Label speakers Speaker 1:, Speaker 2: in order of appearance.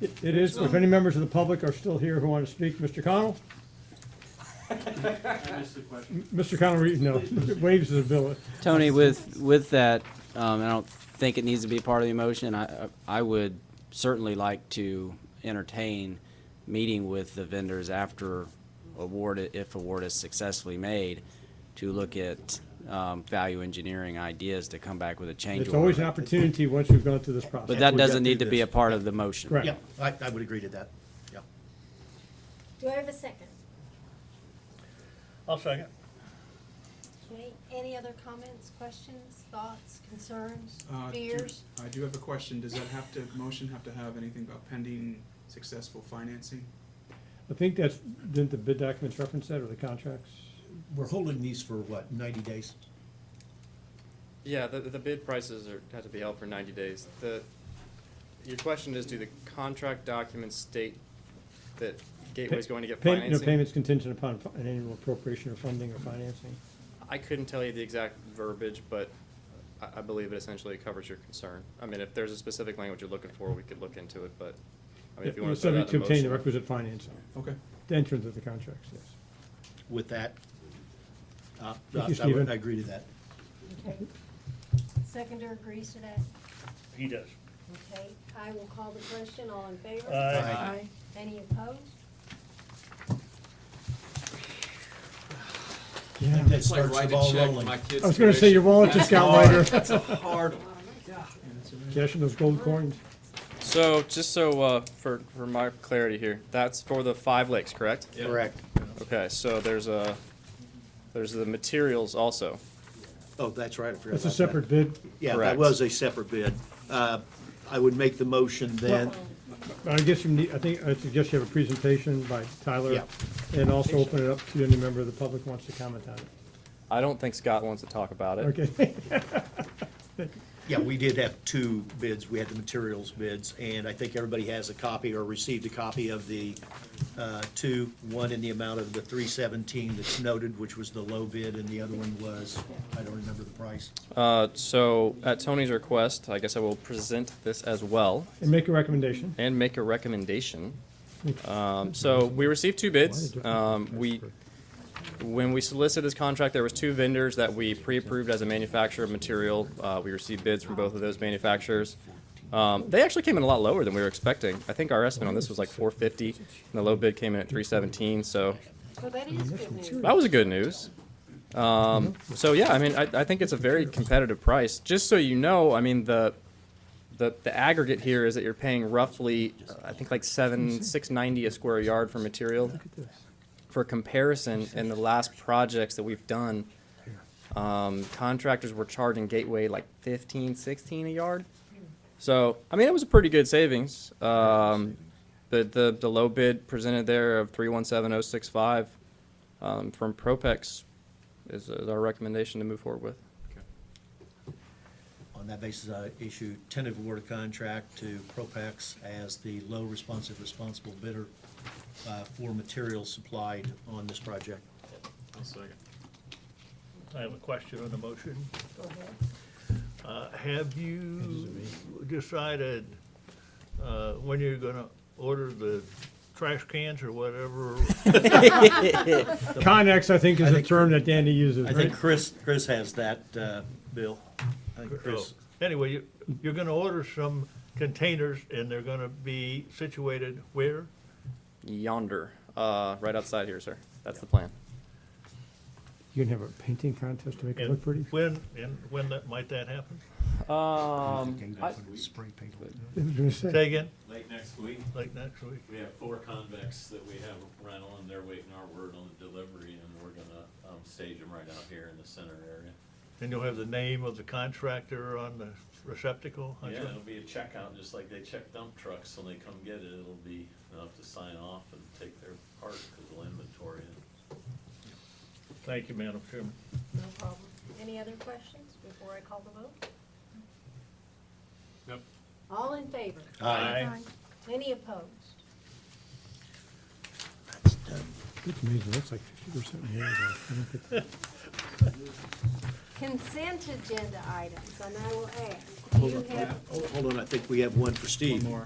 Speaker 1: It it is, if any members of the public are still here who want to speak, Mr. Connell?
Speaker 2: I missed the question.
Speaker 1: Mr. Connell, re- no, waves his bill.
Speaker 3: Tony, with, with that, um, I don't think it needs to be part of the motion. I, I would certainly like to entertain meeting with the vendors after award, i- if award is successfully made, to look at, um, value engineering ideas to come back with a change
Speaker 1: It's always an
Speaker 3: order.
Speaker 1: opportunity once we've gone through this
Speaker 3: But
Speaker 1: process.
Speaker 3: that
Speaker 4: we got
Speaker 3: doesn't
Speaker 4: through
Speaker 3: need to be
Speaker 4: this.
Speaker 3: a part of the motion.
Speaker 1: Correct.
Speaker 4: Yeah, I, I would agree to that, yeah.
Speaker 5: Do I have a second?
Speaker 4: I'll second.
Speaker 5: Okay, any other comments, questions, thoughts, concerns,
Speaker 2: Uh, do-
Speaker 5: fears?
Speaker 2: I do have a question. Does that have to, motion have to have anything about pending successful financing?
Speaker 1: I think that's, didn't the bid documents reference that or the contracts?
Speaker 4: We're holding these for what, ninety days?
Speaker 6: Yeah, the, the bid prices are, have to be held for ninety days. The, your question is, do the contract documents state that Gateway's going to get
Speaker 1: Pay- No,
Speaker 6: financing?
Speaker 1: payments contingent upon fi- an annual appropriation or funding or financing.
Speaker 6: I couldn't tell you the exact verbiage, but I, I believe it essentially covers your concern. I mean, if there's a specific language you're looking for, we could look into it, but, I mean, if you
Speaker 1: Yeah,
Speaker 6: want to put it
Speaker 1: Subject
Speaker 6: out
Speaker 1: to
Speaker 6: in a
Speaker 1: obtain the
Speaker 6: motion.
Speaker 1: requisite financing,
Speaker 2: Okay.
Speaker 1: the entrance of the contracts, yes.
Speaker 4: With that, uh,
Speaker 1: you,
Speaker 4: I- I
Speaker 1: Stephen.
Speaker 4: would, I agree to that.
Speaker 5: Okay. Seconder agrees to that?
Speaker 7: He does.
Speaker 5: Okay, I will call the question, all in favor?
Speaker 7: Aye.
Speaker 4: Aye.
Speaker 5: Any opposed?
Speaker 1: Yeah.
Speaker 4: That starts the ball rolling.
Speaker 1: I was gonna say your wallet just got lighter,
Speaker 2: Hard.
Speaker 1: cashing those gold coins.
Speaker 6: So, just so, uh, for, for my clarity here, that's for the Five Lakes, correct?
Speaker 4: Correct.
Speaker 6: Okay, so there's a, there's the materials also.
Speaker 4: Oh, that's right, I forgot
Speaker 1: That's a
Speaker 4: about that.
Speaker 1: separate bid.
Speaker 4: Yeah, that
Speaker 6: Correct.
Speaker 4: was a separate bid. Uh, I would make the motion then,
Speaker 1: I guess you need, I think, I suggest you have a presentation by Tyler
Speaker 4: Yeah.
Speaker 1: and also open it up to any member of the public who wants to comment on it.
Speaker 6: I don't think Scott wants to talk about it.
Speaker 1: Okay,
Speaker 4: yeah, we did have two bids. We had the materials bids, and I think everybody has a copy or received a copy of the uh, two, one in the amount of the three seventeen that's noted, which was the low bid, and the other one was, I don't remember the price.
Speaker 6: Uh, so, at Tony's request, I guess I will present this as well
Speaker 1: and make a recommendation.
Speaker 6: and make a recommendation. Um, so, we received two bids. Um, we, when we solicited this contract, there was two vendors that we pre-approved as a manufacturer of material. Uh, we received bids from both of those manufacturers. Um, they actually came in a lot lower than we were expecting. I think our estimate on this was like 450, and the low bid came in at 317. So,
Speaker 5: Well, that is good news.
Speaker 6: that was good news. Um, so yeah, I mean, I, I think it's a very competitive price. Just so you know, I mean the the the aggregate here is that you're paying roughly, uh, I think like seven six ninety a square yard for material. For comparison, in the last projects that we've done, um, contractors were charging Gateway like 15, 16 a yard. So I mean, it was a pretty good savings. Um, the, the the low bid presented there of three one seven oh six five um, from Propex is, is our recommendation to move forward with.
Speaker 4: On that basis, I issue tentative award of contract to Propex as the low responsive responsible bidder uh, for materials supplied on this project.
Speaker 7: I have a question on the motion.
Speaker 5: Go ahead.
Speaker 7: Uh, Have you decided uh, when you're gonna order the trash cans or whatever?
Speaker 1: Connex, I think, is
Speaker 4: I
Speaker 1: a
Speaker 4: think-
Speaker 1: term that Danny uses,
Speaker 4: I
Speaker 1: right?
Speaker 4: think Chris, Chris has that, uh, Bill. I think Chris,
Speaker 7: Anyway, you- you're gonna order some containers and they're gonna be situated where?
Speaker 6: Yonder, uh, right outside here, sir. That's the plan.
Speaker 1: You can have a painting contest to make it
Speaker 7: and
Speaker 1: look pretty.
Speaker 7: When, and when that, might that happen?
Speaker 6: Um, I,
Speaker 1: I was gonna say.
Speaker 7: Say again,
Speaker 8: Late next week,
Speaker 7: like next week?
Speaker 8: we have four convicts that we have rental, and they're waiting our word on the delivery, and we're gonna, um, stage them right out here in the center area.
Speaker 7: And you'll have the name of the contractor on the receptacle? I
Speaker 8: Yeah,
Speaker 7: suppose?
Speaker 8: it'll be a checkout, just like they check dump trucks, when they come get it, it'll be enough to sign off and take their part, cause we'll inventory it.
Speaker 7: Thank you, Madam Chairman.
Speaker 5: No problem. Any other questions before I call the vote?
Speaker 8: Nope.
Speaker 5: All in favor?
Speaker 7: Oh. Aye.
Speaker 5: Any opposed?
Speaker 1: It's amazing, that's like fifty percent more than-
Speaker 5: Consent agenda items, and I will ask, do you have
Speaker 4: Hold- hold on, I think we have one for Steve.
Speaker 2: One more.